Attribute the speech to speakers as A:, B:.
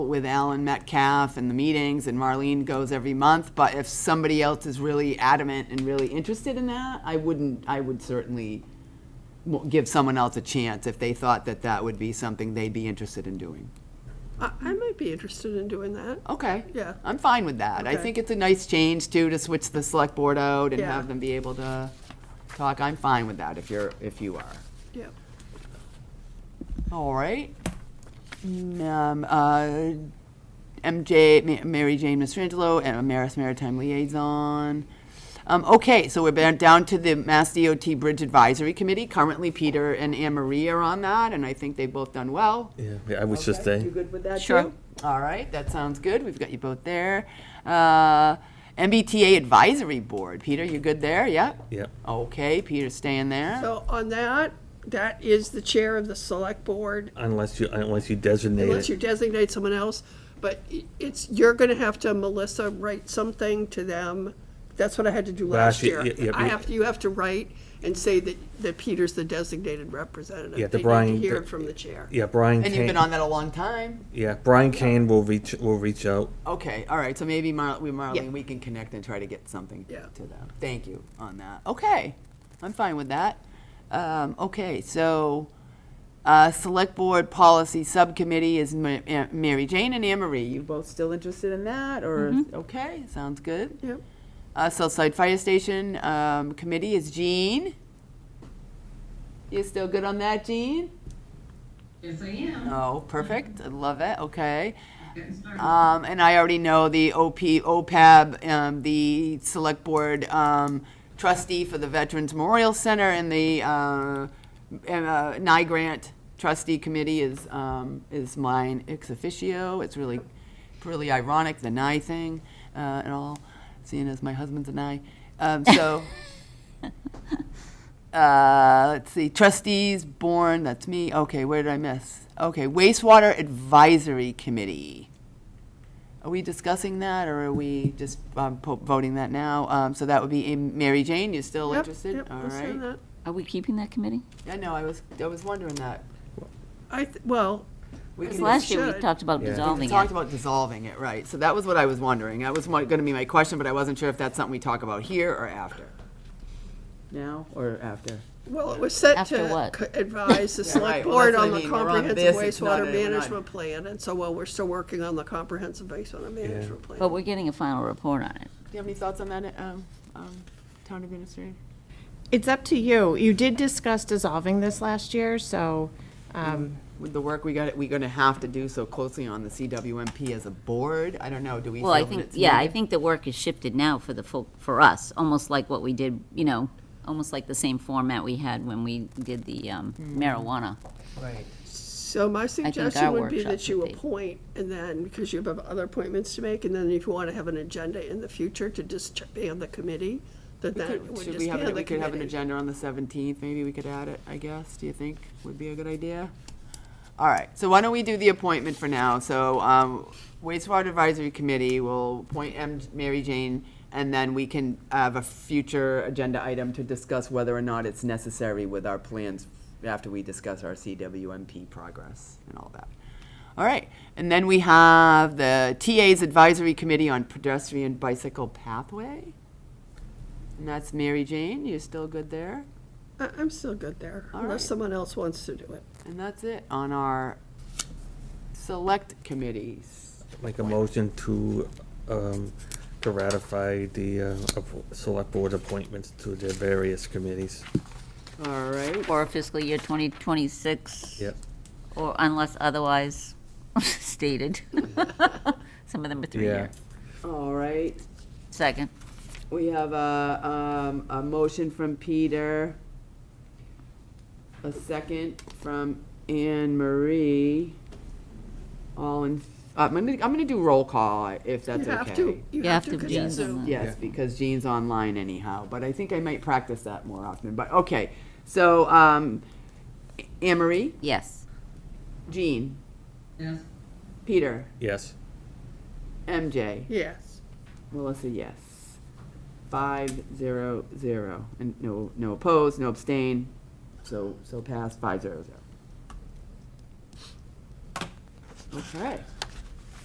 A: with Alan Metcalf and the meetings, and Marlene goes every month, but if somebody else is really adamant and really interested in that, I wouldn't, I would certainly mo- give someone else a chance if they thought that that would be something they'd be interested in doing.
B: I, I might be interested in doing that.
A: Okay.
B: Yeah.
A: I'm fine with that. I
B: Okay.
A: think it's a nice change too, to switch the select board out and
B: Yeah.
A: have them be able to talk. I'm fine with that if you're, if you are.
B: Yeah.
A: All right. Um, uh, MJ, Ma- Mary Jane Mastrangelo, and Maris Maritime Liaison. Um, okay, so we're ba- down to the Mass DOT Bridge Advisory Committee. Currently, Peter and Anne Marie are on that, and I think they've both done well.
C: Yeah, I was just
B: You
C: saying,
B: good with that too?
A: Sure. All right, that sounds good. We've got you both there. Uh, MBTA Advisory Board. Peter, you good there? Yeah?
C: yeah,
A: Okay, Peter's staying there.
B: So on that, that is the chair of the select board,
C: unless you, unless you designate
B: unless you
C: it.
B: designate someone else. But i- it's, you're gonna have to, Melissa, write something to them. That's what I had to do last
C: Last
B: year.
C: year, yeah, yeah,
B: I
C: we-
B: have, to- you have to write and say that, that Peter's the designated representative.
C: Yeah, the
B: They need to
C: Brian-
B: Hear
C: the-
B: it from the chair.
C: Yeah, Brian
A: and you've been
C: Kane,
A: on that a long time.
C: yeah, Brian Kane will reach, will reach out.
A: Okay, all right, so maybe Mar- we,
B: Yeah.
A: Marlene, we can connect and try to get something
B: Yeah.
A: to them. Thank you on that. Okay, I'm fine with that. Um, okay, so, uh, Select Board Policy Subcommittee is Ma- Ann- Mary Jane and Anne Marie. You both still interested in that, or, okay, sounds good.
B: Mm-hmm. Yep.
A: Uh, Southside Fire Station, um, Committee is Jean. You still good on that, Jean?
D: Yes, I am.
A: Oh, perfect, I love it, okay.
D: Getting started.
E: Uh,
A: Um, and I already know the OP, OPAB, um, the select board, um, trustee for the Veterans Memorial Center and the, uh, and, uh, NIGRANT trustee committee is, um, is mine ex officio. It's really, really ironic, the NI thing, uh, and all, seeing as my husband's a NI. Um, so, uh, let's see, trustees, born, that's me. Okay, where did I miss? Okay, wastewater advisory committee. Are we discussing that, or are we just um, po- voting that now? Um, So that would be, um, Mary Jane, you still
B: Yep,
A: interested?
B: yep,
A: All
B: let's do
A: right.
B: that.
E: Are we keeping that committee?
A: I know, I was, I was wondering that.
B: I, th- well,
A: We
B: It's
E: Because
A: can-
E: last year we
B: should.
E: talked about
C: Yeah.
A: We
E: dissolving
A: talked
E: it.
A: about dissolving it, right. So that was what I was wondering. That was going to be my question, but I wasn't sure if that's something we talk about here or after. Now or after?
B: Well, it was set
E: After
B: to
E: what?
B: c- advise the
A: Yeah, right,
B: select
A: well, that's
B: board
A: what I
B: on the
A: mean, we're on
B: comprehensive
A: this, it's not a- we're
B: wastewater
A: not-
B: management plan, and so, well, we're still working on the comprehensive wastewater management
E: But
B: plan.
E: we're getting a final report on it.
A: Do you have any thoughts on that, um, um, town administrator?
F: It's up to you. You did discuss dissolving this last year, so, um,
A: With the work we got, we're going to have to do so closely on the CWMP as a board? I don't know, do we feel
E: Well, I
A: that
E: think,
A: it's
E: yeah, I
A: needed?
E: think the work is shifted now for the full, for us, almost like what we did, you know, almost like the same format we had when we did the um, marijuana.
A: Right.
B: So my suggestion
E: our
B: would be
E: workshop
B: that you
E: would be-
B: appoint, and then, because you have other appointments to make, and then if you want to have an agenda in the future to disband the committee, then that would
A: Should we have,
B: disband
A: it-
B: the
A: we could have an
B: committee.
A: agenda on the 17th, maybe we could add it, I guess, do you think would be a good idea? All right, so why don't we do the appointment for now? So um, wastewater advisory committee will appoint M- Mary Jane, and then we can have a future agenda item to discuss whether or not it's necessary with our plans after we discuss our CWMP progress and all that. All right, and then we have the TA's Advisory Committee on Pedestrian Bicycle Pathway. And that's Mary Jane, you're still good there?
B: I, I'm still good there,
A: All
B: unless
A: right.
B: someone else wants to do it.
A: And that's it on our select committees.
C: Make a motion to, um, to ratify the, uh, app- select board appointments to their various committees.
A: All right,
E: For fiscal year 2026.
C: Yep.
E: Or unless otherwise stated. Some of them are
C: Yeah,
E: three-year.
A: all right.
E: Second.
A: We have a, um, a motion from Peter. A second from Anne Marie. All in, uh, I'm gonna, I'm gonna do roll call if that's okay.
B: You have to, you
E: You
B: have
E: have
B: to,
E: to
B: 'cause
E: be
B: it's
E: on
B: Zoom.
E: that.
A: Yes,
C: Yeah.
A: because Jean's online anyhow, but I think I might practice that more often, but, okay. So, um, Anne Marie,
E: Yes.
A: Jean,
D: Yes,
A: Peter,
C: yes.
A: MJ,
B: Yes.
A: Melissa, yes. Five, zero, zero, and no, no opposed, no abstain, so, so passed, five, zero, zero. Okay,